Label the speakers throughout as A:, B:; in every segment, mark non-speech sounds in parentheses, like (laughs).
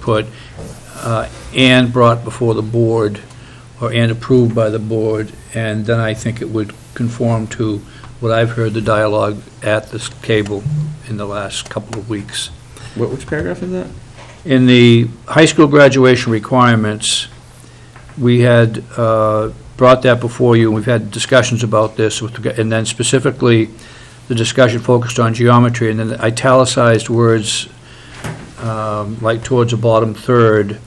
A: put, uh, and brought before the board, or and approved by the board, and then I think it would conform to what I've heard the dialogue at this table in the last couple of weeks.
B: What, which paragraph is that?
A: In the high school graduation requirements, we had uh, brought that before you, and we've had discussions about this, with reg- and then specifically, the discussion focused on geometry, and then the italicized words, um, like towards the bottom third,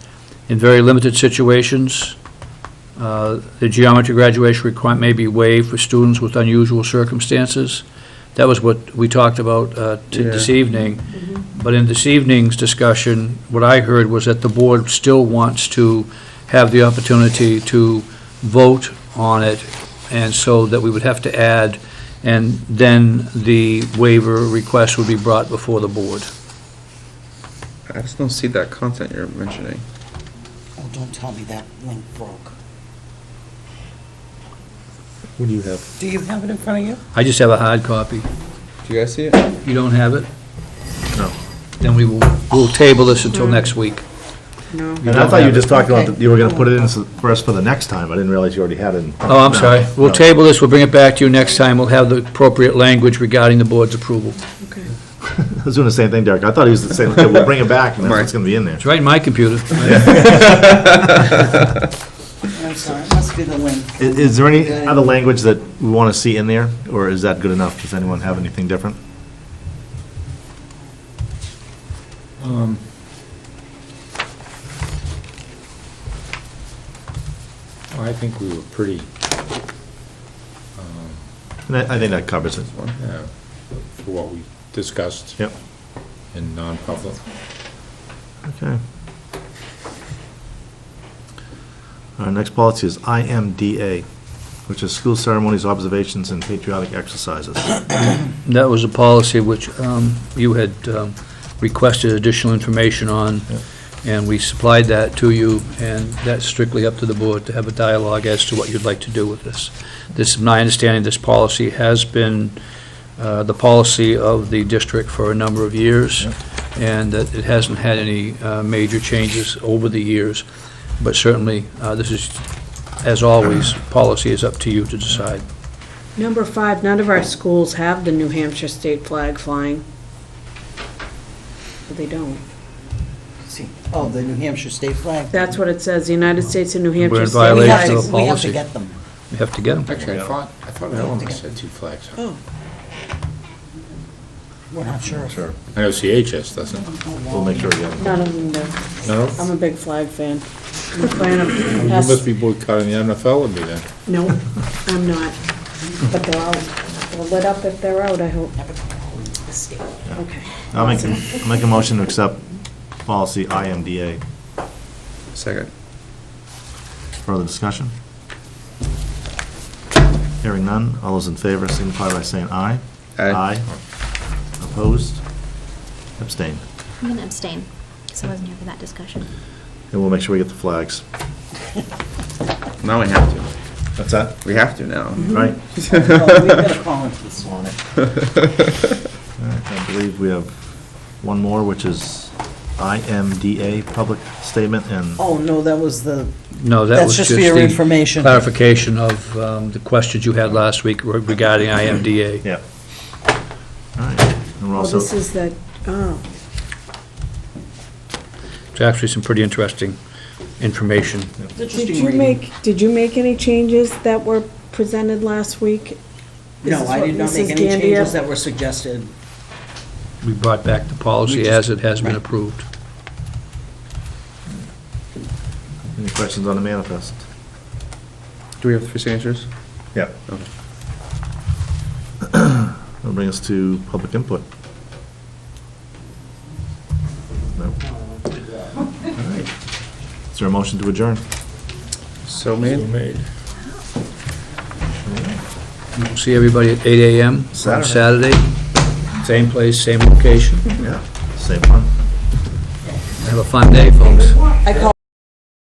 A: in very limited situations, uh, the geometry graduation requirement may be waived for students with unusual circumstances. That was what we talked about uh, t- this
B: Yeah.
A: evening. But in this evening's discussion, what I heard was that the board still wants to have the opportunity to vote on it, and so that we would have to add, and then the waiver request would be brought before the board.
B: I just don't see that content you're mentioning.
C: Oh, don't tell me that link broke.
D: What do you have?
C: Do you have it in front of you?
A: I just have a hard copy.
B: Do you guys see it?
A: You don't have it?
D: No.
A: Then we will, we'll table this until next week.
C: No.
D: And I thought you just talked about,
C: Okay.
D: that you were gonna put it in s- for us for the next time, I didn't realize you already had it. in-
A: Oh, I'm sorry. We'll
D: No.
A: table this, we'll bring it back to you next time, we'll have the appropriate language regarding the board's approval.
D: (laughs) I was doing the same thing, Derek, I thought he was saying, okay, we'll bring it back, and that's what's gonna be in there.
A: It's right in my
D: (laughs)
A: computer.
B: (laughs)
C: I'm sorry, it must be the link.
D: I- Is, there any other language that we wanna see in there, or is that good enough? Does anyone have anything different?
E: I think we were pretty,
D: And I, I think that covers it.
E: uh, for what we discussed
D: Yep,
E: in non-public.
D: okay. Our next policy is IMDA, which is school ceremonies, observations, and patriotic exercises.
A: That was a policy which um, you had um, requested additional information on, and we supplied that to you, and that's strictly up to the board to have a dialogue as to what you'd like to do with this. This, my understanding, this policy has been uh, the policy of the district for a number of years, and that it hasn't had any uh, major changes over the years, but certainly, uh, this is, as always, policy is up to you to decide.
F: Number five, none of our schools have the New Hampshire state flag flying. But They don't.
C: See, oh, the New Hampshire state flag.
F: That's what it says, the United States and New
A: in
F: Hampshire. state
C: We
A: violation
C: have
F: flags.
C: to-
A: of the
C: We have
A: policy.
C: to get them.
A: You have to get them.
E: Actually, I thought, I Oh. thought Eleanor said two flags.
C: We're not sure. Oh, if-
D: Sure,
E: I know CHS doesn't.
D: we'll make sure we get it.
F: None of them do.
E: No?
F: I'm a big flag fan. I'm a fan of,
E: You must be boycotting the NFL with me then.
F: no, I'm not. But they're out, they're lit up if they're out, I hope.
A: (laughs)
F: Okay.
D: I'll make, I'll make a motion to accept policy IMDA.
B: Second.
D: Further discussion? Hearing none, all those in favor signify by saying aye.
B: Aye.
D: Opposed? Abstained.
G: I'm going to abstain, because I wasn't here for that discussion.
D: And we'll make sure we get the flags.
B: Now we have to.
D: That's that?
B: We have to now.
D: Right.
C: Oh, We better call into this one.
B: Mm-hmm. (laughs)
D: All right, I believe we have one more, which is IMDA, public statement, and
C: Oh, no, that was the,
A: No, that
C: That's
A: was just
C: just
A: the...
C: for your information.
A: Clarification of um, the questions you had last week regarding IMDA.
D: yeah. All right, and we're
F: Well,
D: also,
F: this is that, oh,
A: It's actually some pretty interesting information.
F: did
C: interesting
F: you
C: reading.
F: make, did you make any changes that were presented last week? This
C: No,
F: is
C: I
F: what
C: did not
F: Mrs.
C: make any
F: Gandia-
C: changes that were suggested.
A: We brought back the
C: We
A: policy as
C: just-
A: it has been
C: right.
A: approved.
D: any questions on the manifest?
B: Do we have three signatures?
D: Yeah.
B: Okay.
D: That'll bring us to public input. No. All right. Is there a motion to adjourn?
B: So made.
E: made.
A: We'll See everybody at 8 AM on
D: Saturday.
A: Saturday. Same place, same location.
D: Yeah. Same one.
A: Have a fun day, folks.
C: I call